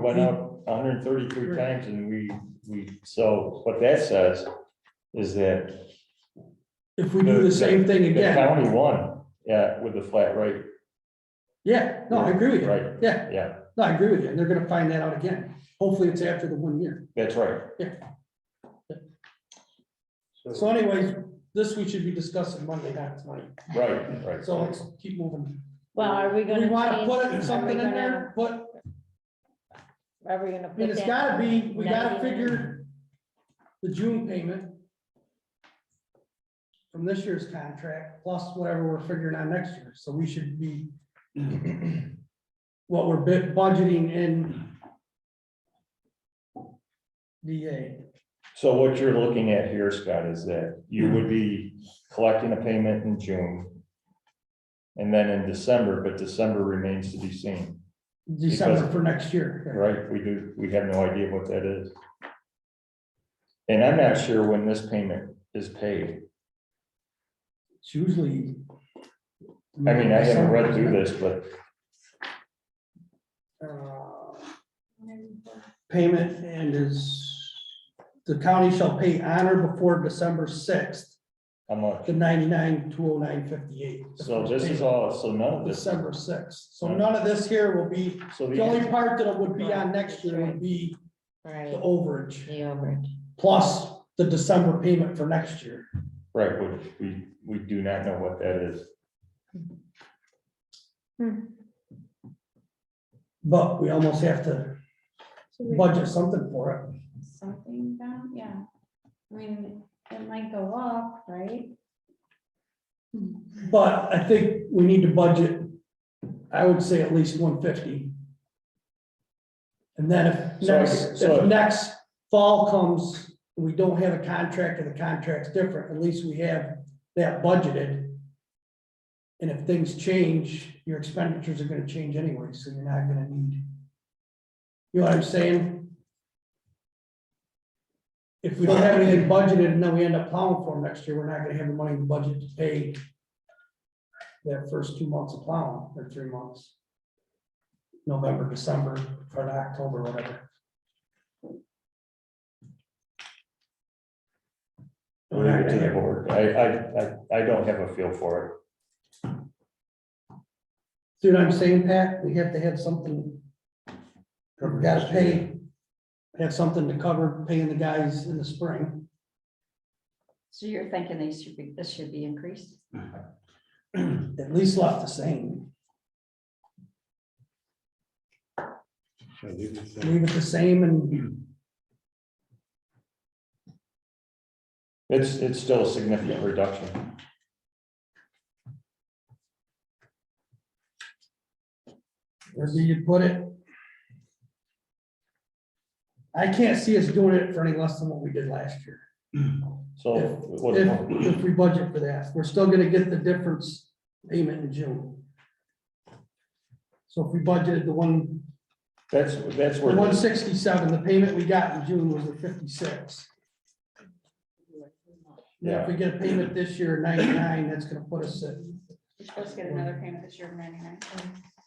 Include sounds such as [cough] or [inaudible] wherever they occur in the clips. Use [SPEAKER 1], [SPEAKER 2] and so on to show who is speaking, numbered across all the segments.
[SPEAKER 1] went up hundred and thirty-three times and we, we, so what that says is that
[SPEAKER 2] If we do the same thing
[SPEAKER 1] the
[SPEAKER 2] again,
[SPEAKER 1] county won, yeah, with the flat rate,
[SPEAKER 2] yeah, no, I agree with you.
[SPEAKER 1] Right.
[SPEAKER 2] Yeah,
[SPEAKER 1] yeah,
[SPEAKER 2] no, I agree with you. And they're gonna find that out again. Hopefully it's after the one year.
[SPEAKER 1] that's right.
[SPEAKER 2] So anyways, this we should be discussing Monday, not tonight.
[SPEAKER 1] Right, right.
[SPEAKER 2] So let's keep moving.
[SPEAKER 3] Well, are we gonna
[SPEAKER 2] We
[SPEAKER 3] change?
[SPEAKER 2] wanna
[SPEAKER 3] are we
[SPEAKER 2] put something in there,
[SPEAKER 3] gonna-
[SPEAKER 2] but
[SPEAKER 3] Are we gonna?
[SPEAKER 2] I mean, it's gotta be, we gotta figure the June payment from this year's contract, plus whatever we're figuring on next year, so we should be what we're bit budgeting in DA,
[SPEAKER 1] So what you're looking at here, Scott, is that you would be collecting a payment in June. And then in December, but December remains to be seen,
[SPEAKER 2] December for next year.
[SPEAKER 1] right? We do, we have no idea what that is. And I'm not sure when this payment is paid.
[SPEAKER 2] It's usually.
[SPEAKER 1] I mean, I haven't read through this, but
[SPEAKER 2] Uh, payment and is, the county shall pay on or before December sixth,
[SPEAKER 1] how much?
[SPEAKER 2] the ninety-nine, two oh nine, fifty-eight.
[SPEAKER 1] So this is all, so none of this,
[SPEAKER 2] December sixth, so none of this here will be,
[SPEAKER 1] so
[SPEAKER 2] the only
[SPEAKER 1] the,
[SPEAKER 2] part that would be on next year would be the
[SPEAKER 3] Right, the
[SPEAKER 2] overage,
[SPEAKER 3] overage.
[SPEAKER 2] plus the December payment for next year.
[SPEAKER 1] right, which we, we do not know what that is.
[SPEAKER 2] But we almost have to
[SPEAKER 4] Should we
[SPEAKER 2] budget something for it,
[SPEAKER 4] put Something down, yeah. I mean, it might go up, right?
[SPEAKER 2] but I think we need to budget, I would say at least one fifty. And then if
[SPEAKER 1] So I-
[SPEAKER 2] next,
[SPEAKER 1] so I-
[SPEAKER 2] if next fall comes, we don't have a contract and the contract's different, at least we have that budgeted. And if things change, your expenditures are gonna change anyway, so you're not gonna need. You know what I'm saying? If we don't have anything budgeted and then we end up plowing for 'em next year, we're not gonna have the money in the budget to pay. That first two months of plowing, or three months. November, December, or October, whatever.
[SPEAKER 1] Leave it to the board. I, I, I, I don't have a feel for it.
[SPEAKER 2] See what I'm saying, Pat? We have to have something. We gotta pay, have something to cover paying the guys in the spring.
[SPEAKER 4] So you're thinking they should be, this should be increased?
[SPEAKER 2] [clears throat] At least left the same. Leave it the same and
[SPEAKER 1] It's, it's still a significant reduction.
[SPEAKER 2] where do you put it? I can't see us doing it for any less than what we did last year.
[SPEAKER 1] So what,
[SPEAKER 2] If, if we budget for that, we're still gonna get the difference payment in June. So if we budgeted the one
[SPEAKER 1] that's, that's
[SPEAKER 2] The one
[SPEAKER 1] where,
[SPEAKER 2] sixty-seven, the payment we got in June was the fifty-six. Now, if we get a payment this year, ninety-nine, that's gonna put us at,
[SPEAKER 4] We're supposed to get another payment this year of ninety-nine.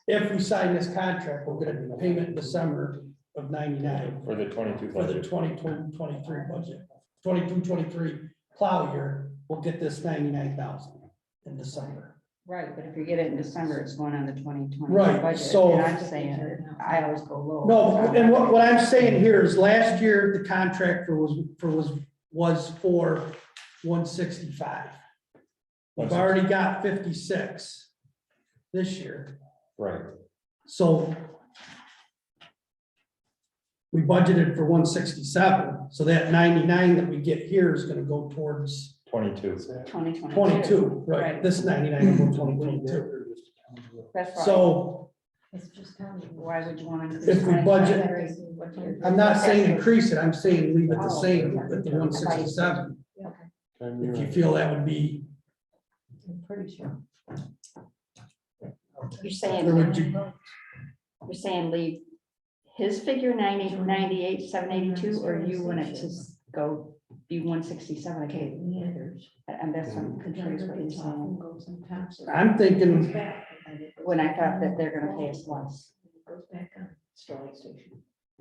[SPEAKER 2] if we sign this contract, we'll get a payment in December of ninety-nine
[SPEAKER 1] for the twenty-two
[SPEAKER 2] for the
[SPEAKER 1] budget.
[SPEAKER 2] 2022-23 budget. 22-23 plow year, we'll get this ninety-nine thousand in December.
[SPEAKER 4] Right, but if you get it in December, it's going on the twenty twenty.
[SPEAKER 2] Right, so-
[SPEAKER 4] And I'm saying, I always go low.
[SPEAKER 2] No, and what, what I'm saying here is last year, the contractor was, for, was, was for one sixty-five. We've already got fifty-six this year,
[SPEAKER 1] Right,
[SPEAKER 2] so we budgeted for one sixty-seven, so that ninety-nine that we get here is gonna go towards
[SPEAKER 1] twenty-two.
[SPEAKER 4] Twenty twenty.
[SPEAKER 2] twenty-two, right?
[SPEAKER 4] Right.
[SPEAKER 2] This ninety-nine will go twenty-two.
[SPEAKER 4] That's why,
[SPEAKER 2] So
[SPEAKER 4] it's just county. Why would you want to?
[SPEAKER 2] If we budget- I'm not saying increase it, I'm saying leave it the same at the one sixty-seven, if you feel that would be,
[SPEAKER 4] Pretty sure. You're saying,
[SPEAKER 2] Or would you-
[SPEAKER 4] you're saying leave his figure ninety, ninety-eight, seven eighty-two, or you want it to s- go be one sixty-seven, okay? And that's what I'm confused what you're saying.
[SPEAKER 2] I'm thinking
[SPEAKER 4] When I thought that they're gonna pay us less.